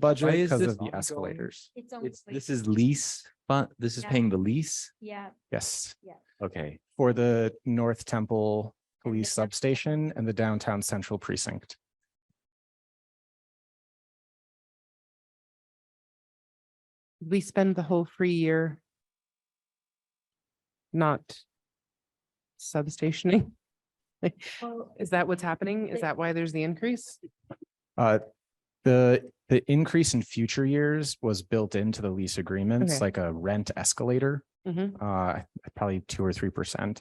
Why budget is because this of the ongoing? escalators. It's on. It's, this is lease, but this is Yeah. paying the lease. Yeah, Yes, Okay, for the North Temple And Police the- Substation and the Downtown Central Precinct. we spend the whole free year not substationing? well, Is that what's happening? Is Like- that why there's the increase? Uh, the, the increase in future years was built into the lease agreements, Okay. like a rent escalator. Mhm. uh, probably two or three percent.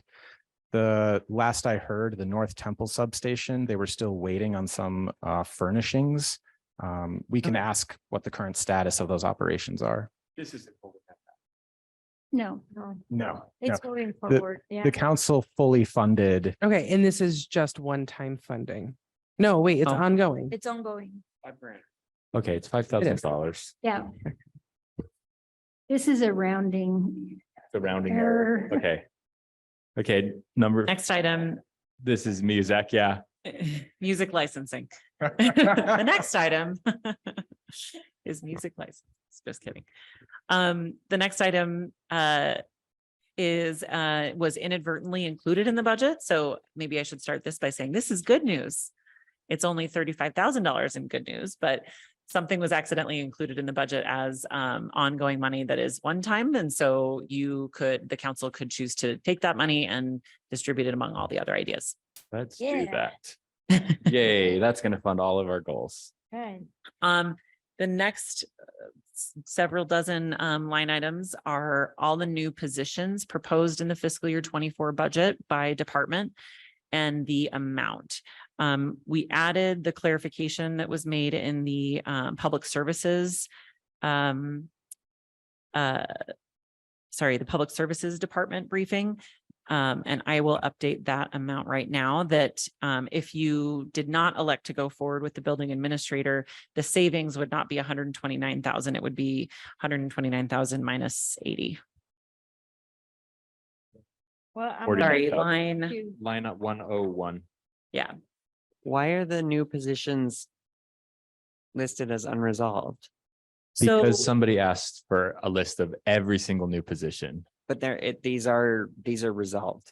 The last I heard, the North Temple substation, they were still waiting on some uh, furnishings. Um, we can Okay. ask what the current status of those operations are. This isn't. over that. no, no, No. it's going forward, yeah. The council fully funded, Okay, and this is just one-time funding? No, wait, it's Oh. ongoing. It's ongoing, Five grand. okay, it's five thousand dollars. yeah. This is a rounding The rounding error. error. Okay. Okay, number, Next item, this is Muzak, yeah. music licensing. The next item is music license, just kidding. Um, the next item uh is uh was inadvertently included in the budget, so maybe I should start this by saying this is good news. It's only thirty-five thousand dollars in good news, but something was accidentally included in the budget as um ongoing money that is one time. And so you could, the council could choose to take that money and distribute it among all the other ideas. Let's do Yeah. that. Yay, that's gonna fund all of our goals. Right. Um, the next uh, s- several dozen um line items are all the new positions proposed in the fiscal year twenty-four budget by department and the amount. Um, we added the clarification that was made in the um public services um uh sorry, the Public Services Department briefing. Um, and I will update that amount right now that um if you did not elect to go forward with the building administrator, the savings would not be hundred and twenty-nine thousand, it would be hundred and twenty-nine thousand minus eighty. Well, I'm Forty. gonna Sorry, 49,000. have line, to- Line up one oh one. Why are the new positions listed as unresolved? so, Because somebody asked for a list of every single new position. But there, it, these are, these are resolved,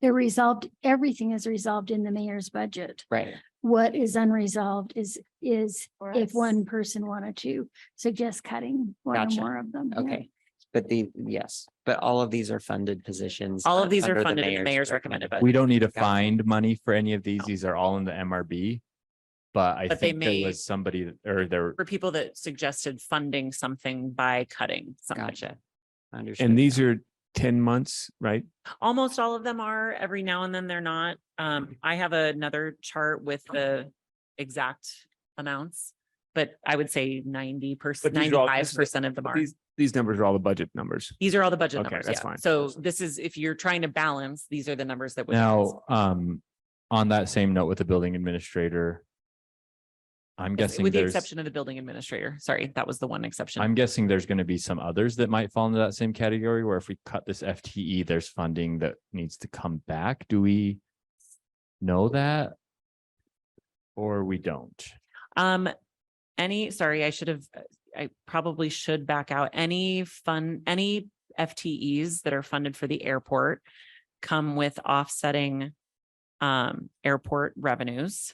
They're resolved, everything is resolved in the mayor's budget. right? What is unresolved is, is For if us. one person wanted to suggest cutting one or Gotcha. more of them. yeah. Okay, but the, yes, but all of these are funded positions. all of these under are the funded in the mayor's recommend- recommended budget. We don't need to Gotcha. find money for any of these. These are all in the MRB. But I But they think there may- was somebody that- or there, For people that suggested funding something by cutting something. Gotcha. Understood. And these are ten months, right? Almost all of them are, every now and then they're not. Mm-hmm. Um, I have another chart with the exact amounts. But I would say ninety percent, But these are all- ninety-five percent of them are. These, these numbers are all the budget numbers. These are all the budget Okay, numbers, that's yeah. fine. So this is, if you're trying to balance, these are the numbers that would. now, um, on that same note with the building administrator. I'm Yes, guessing With the there's. exception of the building administrator. Sorry, that was the one exception. I'm guessing there's going to be some others that might fall into that same category where if we cut this FTE, there's funding that needs to come back. Do we know that? Or we don't? Um, any, sorry, I should have, I probably should back out. Any fun, any FTEs that are funded for the airport come with offsetting um, airport revenues.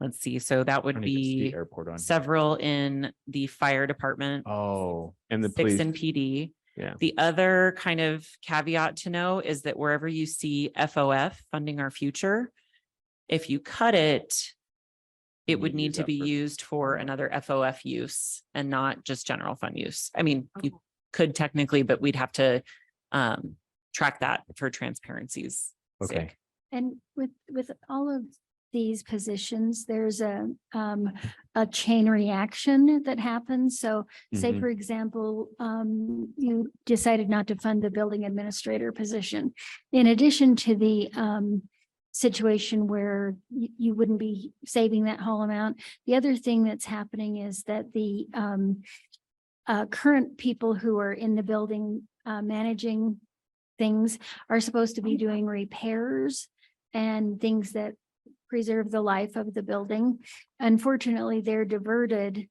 Let's see, so that I would don't even see be Airport on. here. several in the fire department, Oh, And the six police, in PD. Yeah. The other kind of caveat to know is that wherever you see FOF funding our future, if you cut it, it We would use need to that be for- used for another FOF use and not just general fund use. I mean, you could technically, but we'd have to um track that for transparency's sake. okay. And with, with all of these positions, there's a, um, a chain reaction that happens. So say, Mhm. for example, um, you decided not to fund the building administrator position. In addition to the, um, situation where you, you wouldn't be saving that whole amount. The other thing that's happening is that the, um, uh, current people who are in the building, uh, managing things are supposed to be doing repairs and things that preserve the life of the building. Unfortunately, they're diverted